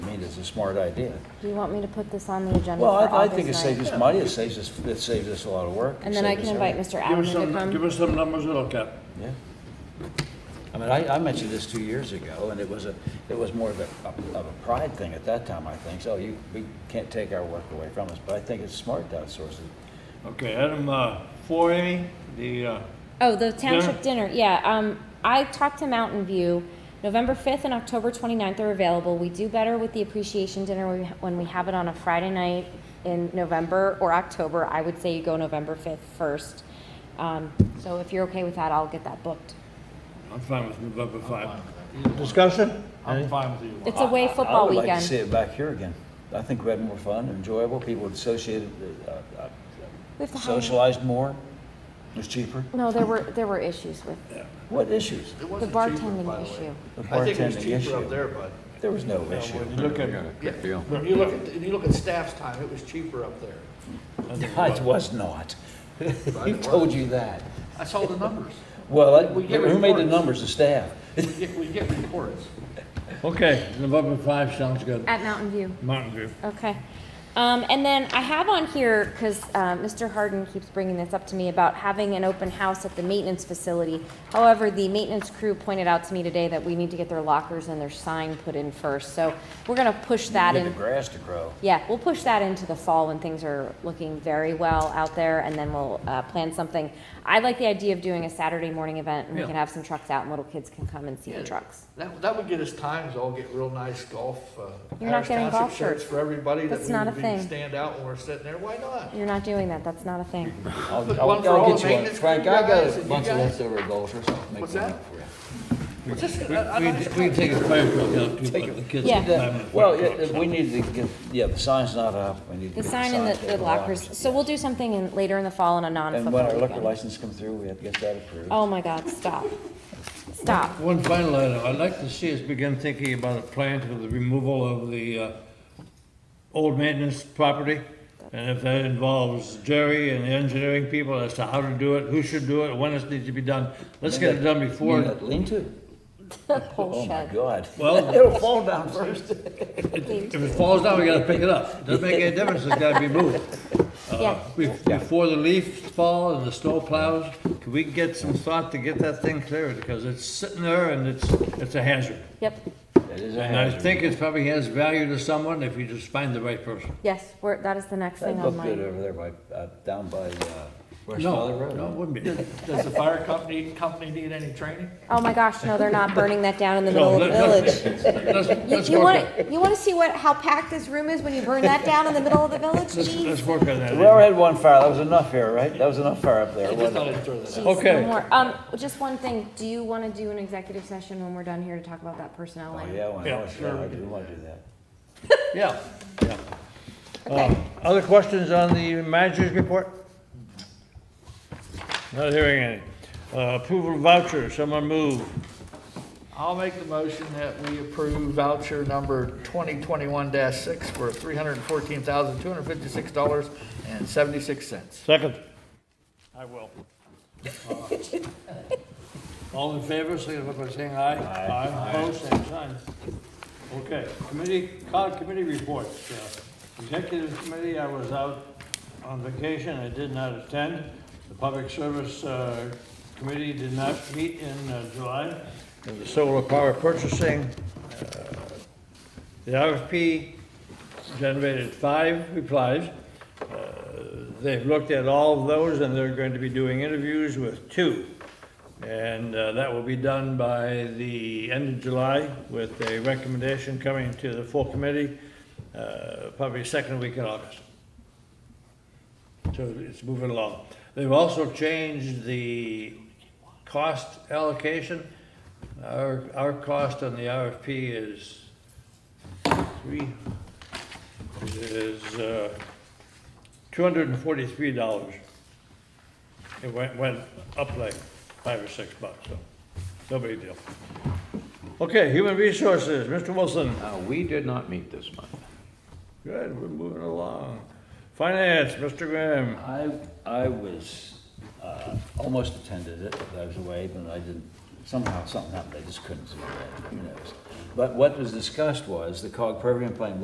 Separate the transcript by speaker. Speaker 1: it's a smart idea.
Speaker 2: Do you want me to put this on the agenda for
Speaker 1: Well, I, I
Speaker 2: August
Speaker 1: think it saves us
Speaker 2: 9th?
Speaker 1: money, it saves us, it saves us a lot of work.
Speaker 2: And then I can invite Mr.
Speaker 3: Give
Speaker 2: Adam
Speaker 3: us
Speaker 2: to
Speaker 3: some, give
Speaker 2: come.
Speaker 3: us some numbers to look at.
Speaker 1: Yeah. I mean, I, I mentioned this two years ago, and it was a, it was more of a, of a pride thing at that time, I think. So you, we can't take our work away from us, but I think it's smart to outsource it.
Speaker 3: Okay, item uh, four, Amy, the, uh,
Speaker 2: Oh, the township dinner, yeah, um, I talked to Mountain View. November fifth and October 29th are available. We do better with the appreciation dinner when we ha- when we have it on a Friday night in November or October. I would say you go November fifth first. Um, so if you're okay with that, I'll get that booked.
Speaker 3: I'm fine with November 5.
Speaker 4: Discussion?
Speaker 5: I'm fine with you.
Speaker 2: It's away
Speaker 1: I
Speaker 2: football
Speaker 1: would
Speaker 2: weekend.
Speaker 1: like to see it back here again. I think we had more fun, enjoyable, people associated, uh,
Speaker 2: We
Speaker 1: uh,
Speaker 2: have to hire-
Speaker 1: socialized more, it was cheaper.
Speaker 2: No, there were, there were issues with
Speaker 1: What issues?
Speaker 5: It
Speaker 2: the
Speaker 5: wasn't cheaper, by
Speaker 2: bartending
Speaker 5: the way.
Speaker 2: issue.
Speaker 1: The
Speaker 5: I think it was
Speaker 1: bartending
Speaker 5: cheaper
Speaker 1: issue.
Speaker 5: up there, bud.
Speaker 1: There was no issue.
Speaker 3: When you look at,
Speaker 5: Yeah, when you look at, if you look at staff's time, it was cheaper up there.
Speaker 1: It was not. Who told you that?
Speaker 5: I saw the numbers.
Speaker 1: Well, I-
Speaker 5: We get
Speaker 1: who made the
Speaker 5: reports.
Speaker 1: numbers? The staff.
Speaker 5: We get- we get reports.
Speaker 3: okay, November 5 sounds good.
Speaker 2: At Mountain View.
Speaker 3: Mountain View.
Speaker 2: Okay. Um, and then I have on here, because, uh, Mr. Harden keeps bringing this up to me about having an open house at the maintenance facility. However, the maintenance crew pointed out to me today that we need to get their lockers and their sign put in first, so we're gonna push that
Speaker 1: Get
Speaker 2: in.
Speaker 1: the grass to grow.
Speaker 2: Yeah, we'll push that into the fall when things are looking very well out there, and then we'll uh, plan something. I like the idea of doing a Saturday morning event, and we
Speaker 3: Yeah.
Speaker 2: can have some trucks out, and little kids can come and see
Speaker 5: Yeah.
Speaker 2: the trucks.
Speaker 5: That, that would get us times, all get real nice golf, uh.
Speaker 2: You're not
Speaker 5: Harris
Speaker 2: getting
Speaker 5: Township
Speaker 2: golf shirts.
Speaker 5: For everybody that
Speaker 2: That's not a
Speaker 5: we would
Speaker 2: thing.
Speaker 5: be stand out when we're sitting there, why not?
Speaker 2: You're not doing that, that's not a thing.
Speaker 1: I'll,
Speaker 5: Put
Speaker 1: I'll-
Speaker 5: one for
Speaker 1: I'll
Speaker 5: all
Speaker 1: get
Speaker 5: the
Speaker 1: you one.
Speaker 5: maintenance crew
Speaker 1: Frank, I
Speaker 5: guys
Speaker 1: got a
Speaker 5: and you
Speaker 1: bunch of
Speaker 5: guys.
Speaker 1: leftover goals or something. Make
Speaker 5: What's
Speaker 1: one
Speaker 5: that?
Speaker 1: up for you.
Speaker 5: We
Speaker 3: We, we take a fire truck out too, but the kids.
Speaker 2: Yeah.
Speaker 3: don't have
Speaker 1: Well,
Speaker 3: fire
Speaker 1: yeah,
Speaker 3: trucks.
Speaker 1: we need to get, yeah, the sign's not up. We need to
Speaker 2: The
Speaker 1: get
Speaker 2: sign and
Speaker 1: signs
Speaker 2: the, the
Speaker 1: up,
Speaker 2: lockers, so
Speaker 1: yeah.
Speaker 2: we'll do something in, later in the fall on a
Speaker 1: And when
Speaker 2: non-football
Speaker 1: our liquor
Speaker 2: weekend.
Speaker 1: license come through, we have to get that approved.
Speaker 2: Oh my God, stop. Stop.
Speaker 3: One final item, I'd like to see us begin thinking about a plan for the removal of the uh, old maintenance property. And if that involves Jerry and the engineering people as to how to do it, who should do it, when it needs to be done. Let's get it done
Speaker 1: You mean
Speaker 3: before,
Speaker 1: that Lean-to?
Speaker 2: Pole
Speaker 1: Oh, my
Speaker 2: shed.
Speaker 1: God.
Speaker 3: Well-
Speaker 1: It'll fall down first.
Speaker 3: if it falls down, we gotta pick it up. Doesn't make any difference, it's gotta be moved. Uh,
Speaker 2: Yeah.
Speaker 3: be- Before the leaves fall and the snow plows, can we get some thought to get that thing cleared? Because it's sitting there and it's, it's a hazard.
Speaker 2: Yep,
Speaker 1: That is a
Speaker 3: And I
Speaker 1: hazard.
Speaker 3: think it probably has value to someone if you just find the right person.
Speaker 2: yes, we're, that is the next thing
Speaker 1: That
Speaker 2: on
Speaker 1: looked good
Speaker 2: mine.
Speaker 1: over there by, uh, down by, uh, West Valley
Speaker 3: No,
Speaker 1: Road.
Speaker 3: no, it wouldn't be.
Speaker 5: Does the fire company, company need any training?
Speaker 2: Oh my gosh, no, they're not burning that down in the
Speaker 3: No,
Speaker 2: middle of the
Speaker 3: let's-
Speaker 2: village.
Speaker 3: Let's, let's
Speaker 2: You
Speaker 3: work, on-
Speaker 2: wanna, you wanna see what, how packed this room is when you burn that down in the middle of the village?
Speaker 3: let's,
Speaker 2: Jeez.
Speaker 3: let's work on that.
Speaker 1: We already had one fire, that was enough here, right? That was enough fire up there,
Speaker 5: I just
Speaker 1: wasn't
Speaker 5: thought
Speaker 1: it?
Speaker 5: I'd throw that out.
Speaker 2: Jeez, no
Speaker 3: Okay.
Speaker 2: more. Um, just one thing, do you wanna do an executive session when we're done here to talk about that personnel
Speaker 1: Oh,
Speaker 2: line?
Speaker 1: yeah, when I
Speaker 3: Yeah,
Speaker 1: was,
Speaker 3: sure.
Speaker 1: yeah, I do wanna do that.
Speaker 3: Yeah, yeah.
Speaker 2: Okay.
Speaker 3: Uh, Other questions on the manager's report? Not hearing any. Uh, Approval of vouchers, someone move.
Speaker 5: I'll make the motion that we approve voucher number 2021-6 for $314,256.76.
Speaker 3: Second. I will. Uh, All in favor, signify by saying aye. Aye. Opposed, same sign. Okay, committee, cog committee reports. Uh, Executive committee, I was out on vacation, I did not attend. The public service uh, committee did not meet in uh, July. And The solar power purchasing, uh, the RFP generated five replies. Uh, They've looked at all of those, and they're going to be doing interviews with two. And uh, that will be done by the end of July with a recommendation coming to the full committee, uh, probably second week in August. So it's moving along. They've also changed the cost allocation. Our, our cost on the RFP is three, is uh, two hundred and forty-three dollars. It went, went up like five or six bucks, so, no big deal. Okay, human resources, Mr. Wilson,
Speaker 6: Uh, We did not meet this month.
Speaker 3: good, we're moving along. Finance, Mr. Graham,
Speaker 1: I, I was, uh, almost attended it, but I was away, but I didn't, somehow, something happened, I just couldn't do that, who knows? But what was discussed was the cog program plan